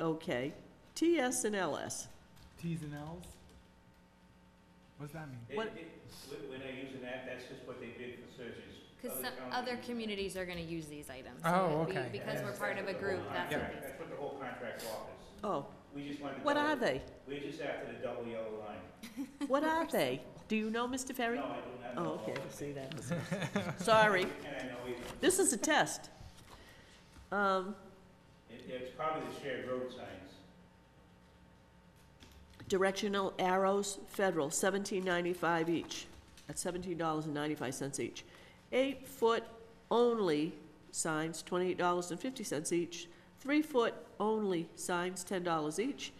Okay, TS and LS. Ts and Ls? What's that mean? It- What- it- When when I use an app, that's just what they did for searches. Because some counties- other communities are gonna use these items. so Oh, we- okay. Because we're part That's what of a the group, whole that's contract- what That's what the whole contract offers. Oh, We just wanted to. what double- are they? We're just after the double yellow line. What are they? Do you know, Mr. Ferry? No, I do not know. Oh, okay, all of see it. that. was- Sorry, And I know it, this is a test. Um, it- it's probably the shared road signs. Directional arrows, federal, seventeen ninety-five each, at seventeen dollars and ninety-five cents each. Eight-foot only signs, twenty-eight dollars and fifty cents each. Three-foot only signs, ten dollars each.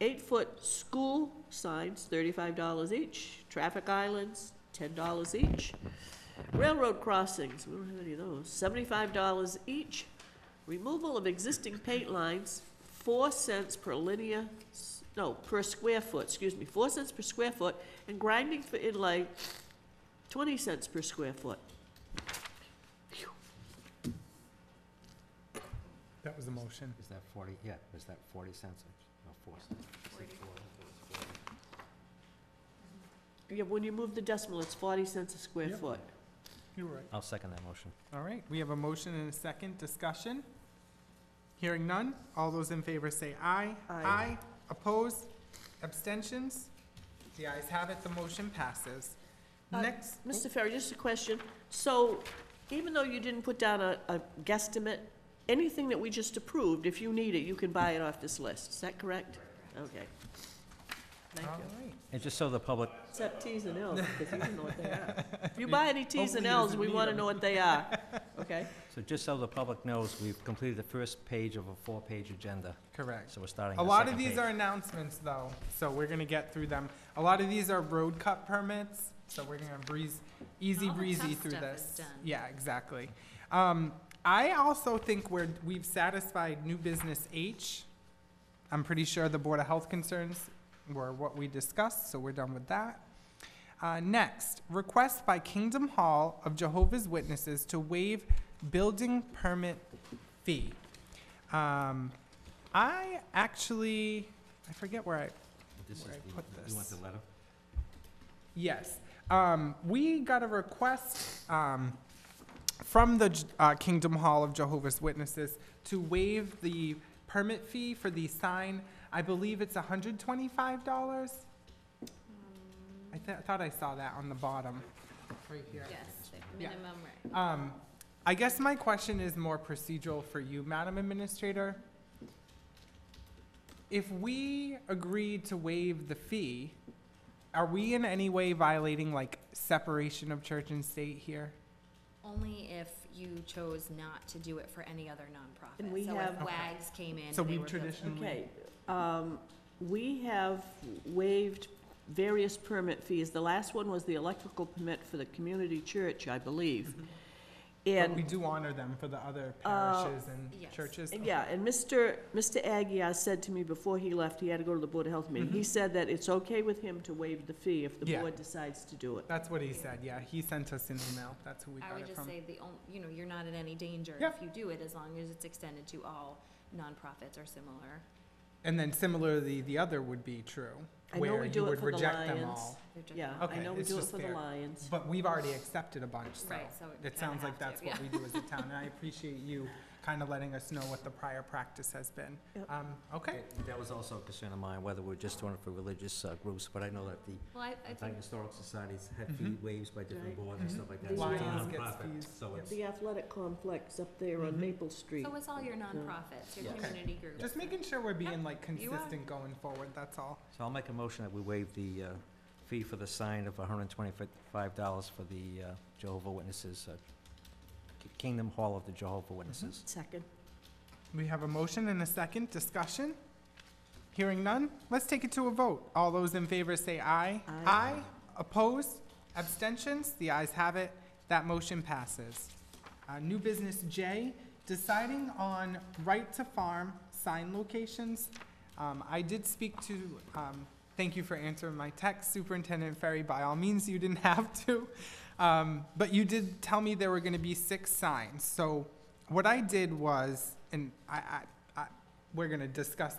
Eight-foot school signs, thirty-five dollars each. Traffic islands, ten dollars each. Railroad crossings, we don't have any of those, seventy-five dollars each. Removal of existing paint lines, four cents per linear, s- no, per square foot, excuse me, four cents per square foot, and grinding for inlay, twenty cents per square foot. That was the motion. Is that forty, yeah, is that forty cents, or no, four cents? Is it four? Yeah, when you move the decimal, it's forty cents a square Yep. foot. You're right. I'll second that motion. All right, we have a motion and a second discussion. Hearing none, all those in favor say aye. Aye. Opposed, abstentions? The ayes have it, the motion passes. Uh, Next, Mr. Ferry, just a question, so even though you didn't put down a, a guesstimate, anything that we just approved, if you need it, you can buy it off this list, is that correct? Okay. Thank all you. right. And just so the public, Except Ts and Ls, because you don't know what they are. If you buy any Ts and Hopefully he Ls, doesn't we need want to them. know what they are, okay? so just so the public knows, we've completed the first page of a four-page agenda, Correct. so we're starting A the lot of second these page. are announcements though, so we're gonna get through them. A lot of these are road cut permits, so we're gonna breeze, easy All the breezy tough through this. stuff is done. Yeah, exactly. Um, I also think we're, we've satisfied new business H. I'm pretty sure the Board of Health concerns were what we discussed, so we're done with that. Uh, next, request by Kingdom Hall of Jehovah's Witnesses to waive building permit fee. Um, I actually, I forget where I, This is where I the- put You want the this. letter? yes. Um, we got a request, um, from the J- uh, Kingdom Hall of Jehovah's Witnesses to waive the permit fee for the sign. I believe it's hundred twenty-five dollars. I th- thought I saw that on the bottom, right here. Yes, the Yeah. minimum rate. Um, I guess my question is more procedural for you, Madam Administrator. If we agreed to waive the fee, are we in any way violating like separation of church and state here? Only if you chose not to do it for any other nonprofit. And we So if have- Okay. WAGs came in, So they we were building- traditionally- Okay, um, we have waived various permit fees. The last one was the electrical permit for the community church, I believe. Mm-hmm. But And we do honor them for the other Uh, parishes and Yes. churches? And Yeah, and Mr. Mr. Aguirre said to me before he left, he had to go to the Board of Health meeting. He said that it's okay with him to waive the fee if the Mm-hmm. Yeah. board decides to do it. That's what he said, yeah, he sent us an email, that's who we I got would it just from. say the, on- you know, you're not in any danger Yep. if you do it, as long as it's extended to all nonprofits or similar. And then similarly, the other would be true, I know we where do you it would for the reject them Lions. all. They're just- Yeah, I Okay, know we it's do it just for the fair. Lions. But we've already accepted a bunch, so. Right, so we It kinda sounds like have to, that's what we do as a town, and I appreciate you kind of letting us know what the prior practice has been. Yep. Um, okay, That was also a concern of mine, whether we're just doing it for religious uh, groups, but I know that the Well, I, I Titan think, Historic Society's had fee Mhm. waves by different Right. boards and stuff like that. Mhm. so it's a Lions gets nonprofit, fees, So yep. it's, The athletic complex up there on Mhm. Maple Street. so it's all your nonprofits, your Okay. community groups. just making sure we're being like You are. consistent going forward, that's all. so I'll make a motion that we waive the uh, fee for the sign of hundred and twenty-five dollars for the uh, Jehovah Witnesses, uh, Ki- Kingdom Hall of the Jehovah Witnesses. Second. We have a motion and a second discussion. Hearing none, let's take it to a vote. All those in favor say aye. Aye. Opposed? Abstentions? The ayes have it. That motion passes. Uh, new business J, deciding on right to farm sign locations. Um, I did speak to, um, thank you for answering my text, Superintendent Ferry, by all means, you didn't have to. Um, but you did tell me there were gonna be six signs, so what I did was, and I, I, I, we're gonna discuss